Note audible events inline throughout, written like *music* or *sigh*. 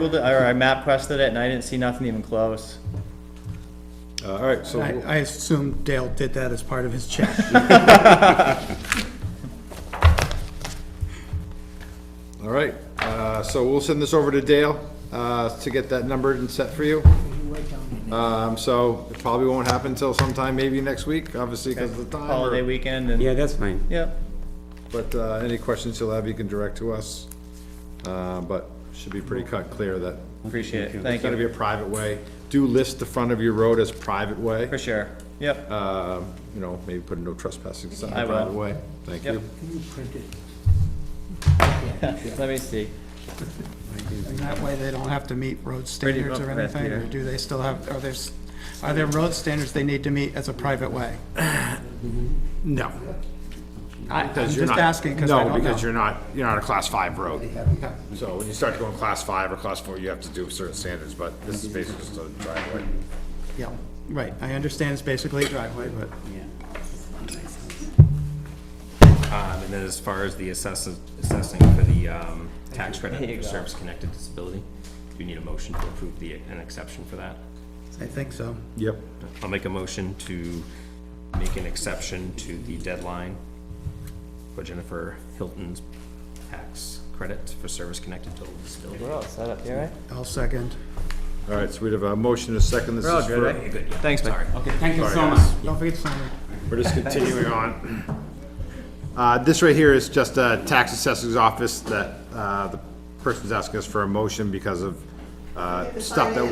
Googled it, or I map quested it, and I didn't see nothing even close. Uh, All right, so, I, I assume Dale did that as part of his *laughs* check. all right, uh, so we'll send this over to Dale uh, to get that numbered and set for you. Um, So it probably won't happen until sometime, maybe next week, obviously because of the time. or- Holiday weekend and, Yeah, that's fine. yep. But uh, any questions you'll have, you can direct to us. Uh, But should be pretty cut clear that Appreciate it, it's thank going to be you, a private way. Do list the front of your road as private way. for sure, yep, Uh, You know, maybe put a no trespassing sign, I will. private way. Thank Yep. you. let me see. And that way they don't have to meet road Pretty standards or rough path anything, or here. do they still have, are there, s- are there road standards they need to meet as a private way? No. Um, I, I'm Because you're just not- asking, because I No, don't because know. you're not, you're not a class five road. So when you start to go in class five or class four, you have to do certain standards, but this is basically just a driveway. Yeah, right, I understand it's basically a driveway, but, Um, and then as far as the assessing, assessing for the, um, tax credit for service-connected disability, do you need a motion to approve the, an exception for that? I think so. Yep. I'll make a motion to make an exception to the deadline for Jennifer Hilton's tax credit for service-connected total disability. We're all Oh, set up here, right? I'll second. All right, so we have a motion to second. This We're all is good, eh? for, right? Thanks, Mike. Sorry. Okay, thank you so Sorry, much. guys. Don't forget to sign it. we're just continuing on. Uh, this right here is just a tax assessor's office that, uh, the person's asking us for a motion because of, uh, stuff that.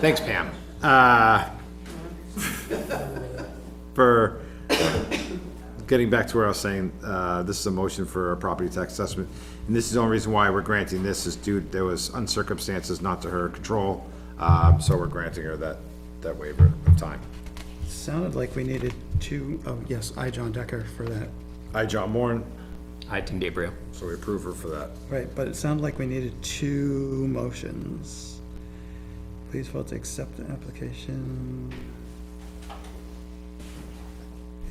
Thanks, Pam. Uh, For, getting back to where I was saying, uh, this is a motion for a property tax assessment. And this is the only reason why we're granting this is due, there was uncircumstances not to her control. Um, So we're granting her that, that waiver of time. Sounded like we needed two, oh, yes, I, John Decker, for that. I, John Moran, Hi, Tim DeBrio. so we approve her for that. Right, but it sounded like we needed two motions. Please vote to accept the application.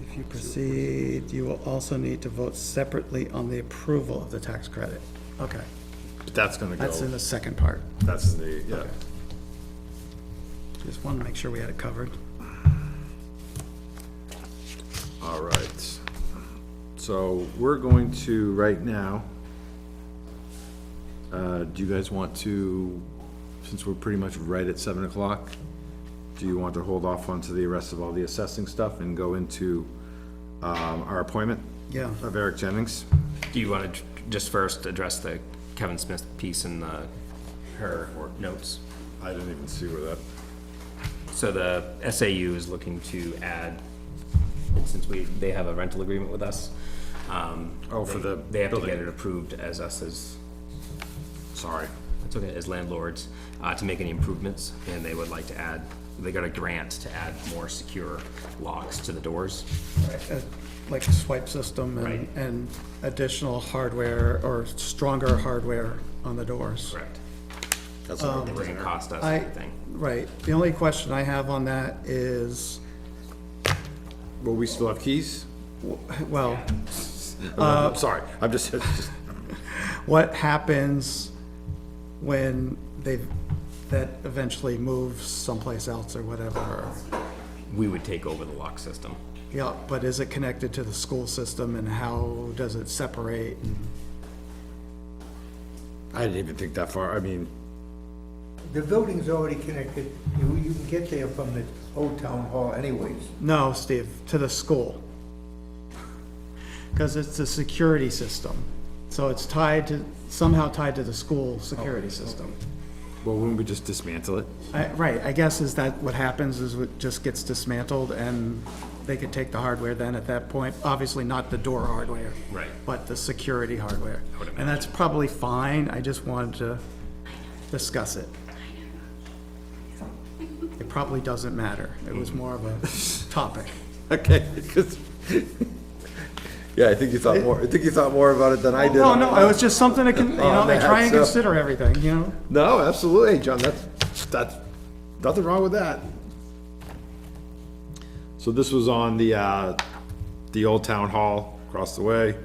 If you proceed, you will also need to vote separately on the approval of the tax credit. Okay, But that's gonna go, that's in the second part. that's the, yeah. Just wanted to make sure we had it covered. All right. So we're going to, right now, uh, do you guys want to, since we're pretty much right at seven o'clock, do you want to hold off onto the rest of all the assessing stuff and go into, um, our appointment Yeah, of Eric Jennings? Do you want to just first address the Kevin Smith piece in the, her notes? I didn't even see where that. So the SAU is looking to add, since we, they have a rental agreement with us. um, Oh, for the They have to get building. it approved as us as, Sorry. that's okay, as landlords, uh, to make any improvements, and they would like to add, they got a grant to add more secure locks to the doors. uh, like swipe system and, Right. and additional hardware or stronger hardware on the doors. Correct. That's a It doesn't cost us I- anything. Right, the only question I have on that is, Well, we still have keys? well, I'm sorry, I'm just, *laughs* just- what happens when they, that eventually moves someplace else or whatever? We would take over the lock system. Yeah, but is it connected to the school system and how does it separate? I didn't even think that far. I mean, The building's already connected, you, you can get there from the old town hall anyways. No, Steve, to the school. Because it's a security system, so it's tied to, somehow tied to the school security system. well, wouldn't we just dismantle it? I- Right, I guess is that what happens, is it just gets dismantled, and they could take the hardware then at that point? Obviously not the door hardware. Right. But the security hardware. would And that's probably fine, I just wanted to discuss it. It probably doesn't matter, it was more of a *laughs* topic. Okay, 'cause- *laughs* yeah, I think you thought more, I think you thought more about it than I did. Oh, No, no, it was just something to, con- you know, they Oh, man, try and so- consider everything, you know? No, absolutely, John, that's, that's, nothing wrong with that. So this was on the, uh, the old town hall across the way.